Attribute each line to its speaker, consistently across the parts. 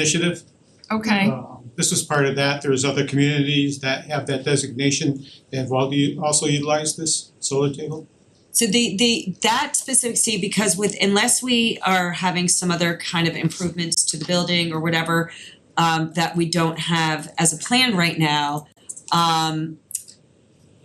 Speaker 1: initiative.
Speaker 2: Okay,
Speaker 1: Um, This was part of that. There's other communities that have that designation. They have all the- also utilized this solar table.
Speaker 3: So the the that specific C, because with unless we are having some other kind of improvements to the building or whatever um that we don't have as a plan right now, um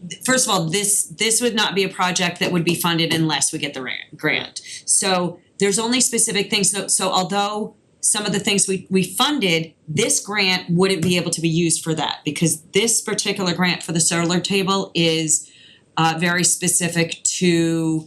Speaker 3: th- first of all, this this would not be a project that would be funded unless we get the ran- grant. So there's only specific things, so so although some of the things we we funded, this grant wouldn't be able to be used for that because this particular grant for the solar table is uh very specific to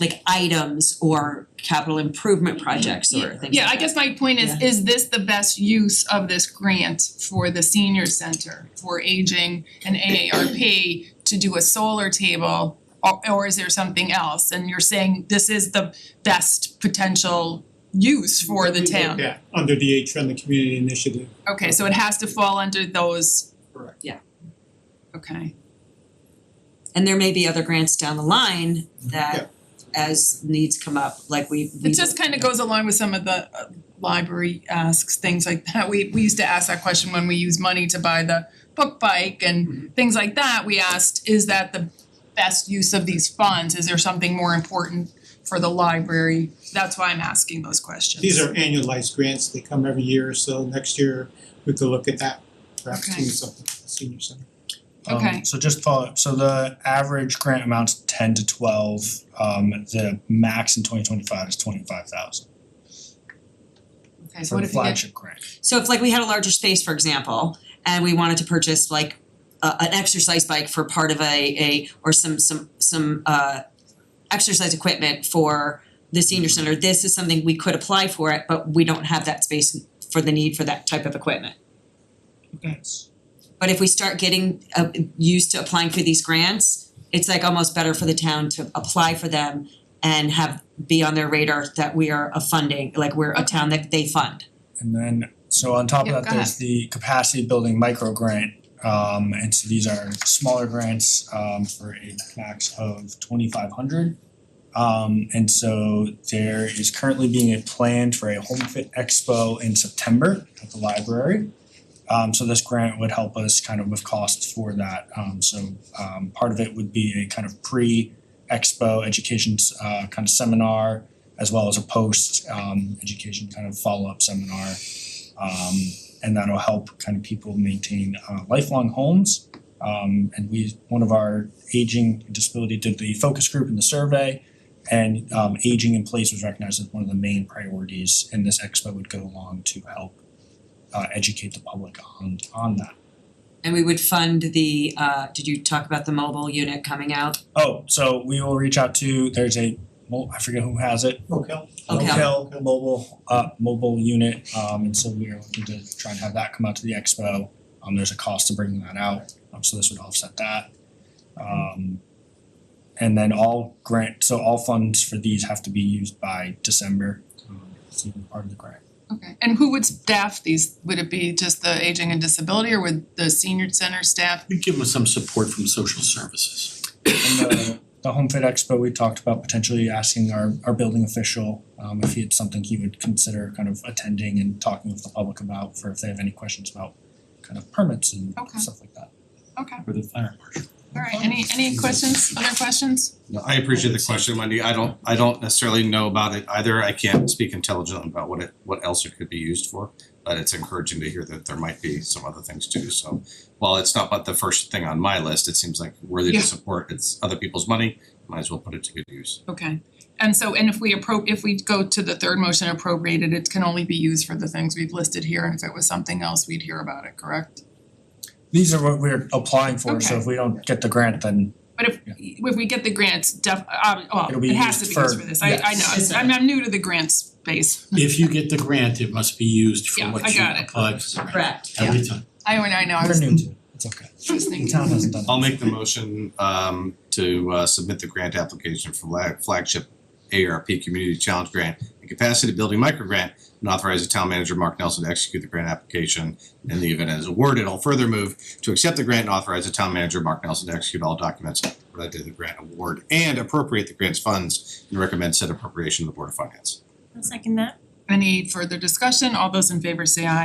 Speaker 3: like items or capital improvement projects or things like that.
Speaker 2: yeah, I guess my point is, is this the best use of this grant for the senior center for aging and AARP to do a solar table? Or or is there something else? And you're saying this is the best potential use for the
Speaker 1: We looked
Speaker 2: town?
Speaker 1: at under the H on the community initiative.
Speaker 2: Okay, so it has to fall under those?
Speaker 1: Correct.
Speaker 3: Yeah.
Speaker 2: Okay,
Speaker 3: And there may be other grants down the line
Speaker 1: Yeah.
Speaker 3: that as needs come up, like we we
Speaker 2: it just kind of goes along with some of the uh, library asks, things like that. We we used to ask that question when we used money to buy the book bike
Speaker 1: Mm-hmm.
Speaker 2: and things like that. We asked, is that the best use of these funds? Is there something more important for the library? That's why I'm asking those questions.
Speaker 1: These are annualized grants. They come every year, so next year we could look at that, perhaps
Speaker 2: Okay.
Speaker 1: doing something for the senior center.
Speaker 4: Um,
Speaker 2: Okay.
Speaker 4: so just follow up. So the average grant amount's ten to twelve. Um, the max in twenty twenty five is twenty five thousand
Speaker 2: Okay, so
Speaker 4: for
Speaker 2: what
Speaker 4: the
Speaker 2: if you get,
Speaker 4: flagship grant.
Speaker 3: So if like we had a larger space, for example, and we wanted to purchase like a an exercise bike for part of a a or some some some uh exercise equipment for the senior center, this is something we could apply for it, but we don't have that space for the need for that type of equipment. But if we start getting uh used to applying for these grants, it's like almost better for the town to apply for them and have be on their radar that we are a funding, like we're a town that they fund.
Speaker 4: And then so on top
Speaker 2: Yeah,
Speaker 4: of
Speaker 2: go
Speaker 4: that, there's the capacity building micro grant. Um, and so these are smaller grants um, for a max of twenty five hundred. Um, and so there is currently being a plan for a home fit expo in September at the library. Um so this grant would help us kind of with costs for that. Um so um part of it would be a kind of pre-expo education uh kind of seminar as well as a post um education kind of follow-up seminar. Um and that'll help kind of people maintain uh lifelong homes. Um and we, one of our aging and disability did the focus group and the survey. And um aging in place was recognized as one of the main priorities and this expo would go along to help uh educate the public on on that.
Speaker 3: And we would fund the uh did you talk about the mobile unit coming out?
Speaker 4: Oh, so we will reach out to, there's a, well, I forget who has it,
Speaker 1: Okay.
Speaker 3: Okay.
Speaker 4: Oakdale mobile uh mobile unit, um and so we are looking to try and have that come out to the expo. Um there's a cost to bringing that out, um so this would offset that. Um and then all grant, so all funds for these have to be used by December, um it's even part of the grant.
Speaker 2: okay, and who would staff these? Would it be just the aging and disability or would the senior center staff?
Speaker 5: We give them some support from social services.
Speaker 4: And the the Home Fit Expo, we talked about potentially asking our our building official um if he had something he would consider kind of attending and talking with the public about for if they have any questions about kind of permits and
Speaker 2: Okay.
Speaker 4: stuff like that.
Speaker 2: Okay,
Speaker 5: For the fire marshal.
Speaker 2: all right, any any questions, other questions?
Speaker 6: No, I appreciate the question, Wendy. I don't, I don't necessarily know about it either. I can't speak intelligently about what it, what else it could be used for. But it's encouraging to hear that there might be some other things too. So while it's not but the first thing on my list, it seems like worthy
Speaker 2: Yeah.
Speaker 6: to support. It's other people's money. Might as well put it to good use.
Speaker 2: Okay, and so, and if we appro, if we go to the third motion appropriated, it can only be used for the things we've listed here, and if it was something else, we'd hear about it, correct?
Speaker 4: These are what we're applying for, so
Speaker 2: Okay.
Speaker 4: if we don't get the grant, then
Speaker 2: But if,
Speaker 4: Yeah.
Speaker 2: if we get the grants, def, um, well,
Speaker 4: It'll be
Speaker 2: it has to be
Speaker 4: used
Speaker 2: used
Speaker 4: for-
Speaker 2: for this, I, I know,
Speaker 4: yes.
Speaker 2: I'm, I'm new to the grant space.
Speaker 5: If you get the grant, it must be used for
Speaker 2: Yeah, I
Speaker 5: what you
Speaker 2: got it.
Speaker 5: applied for.
Speaker 3: Correct.
Speaker 5: Every time.
Speaker 2: I, when I know, I
Speaker 4: we're
Speaker 2: was
Speaker 4: new to it, it's okay.
Speaker 2: was
Speaker 4: The
Speaker 2: thinking.
Speaker 4: town hasn't done
Speaker 6: I'll
Speaker 4: it.
Speaker 6: make the motion um to uh submit the grant application for flag- flagship ARP Community Challenge Grant and Capacity Building Micro Grant and authorize the town manager, Mark Nelson, to execute the grant application. In the event it is awarded, I'll further move to accept the grant and authorize the town manager, Mark Nelson, to execute all documents related to the grant award and appropriate the grant's funds and recommend said appropriation to the Board of Finance.
Speaker 7: I'll second that.
Speaker 2: Any further discussion? All those in favor say aye.